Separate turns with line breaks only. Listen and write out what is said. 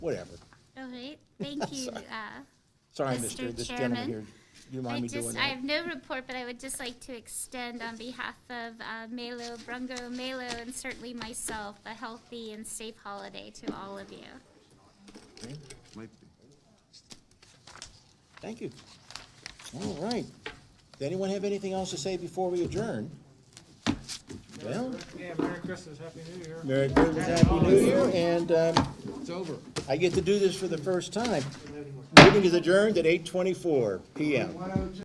whatever.
All right, thank you. uh,
Sorry,
Mr.
Mr. this gentleman
Chairman,
here, you mind
I
me doing
just, I
that?
have no report, but I would just like to extend on behalf of uh, Melo, Brungo, Melo, and certainly myself, a healthy and safe holiday to all of you.
Hmm? Might be.
Thank you. All right. Does anyone have anything else to say before we adjourn? Well,
Yeah, Merry Christmas, Happy New Year.
Merry Christmas, Happy New Year, and, um,
It's over.
I get to do this for the first time. Meeting is adjourned at eight twenty-four PM.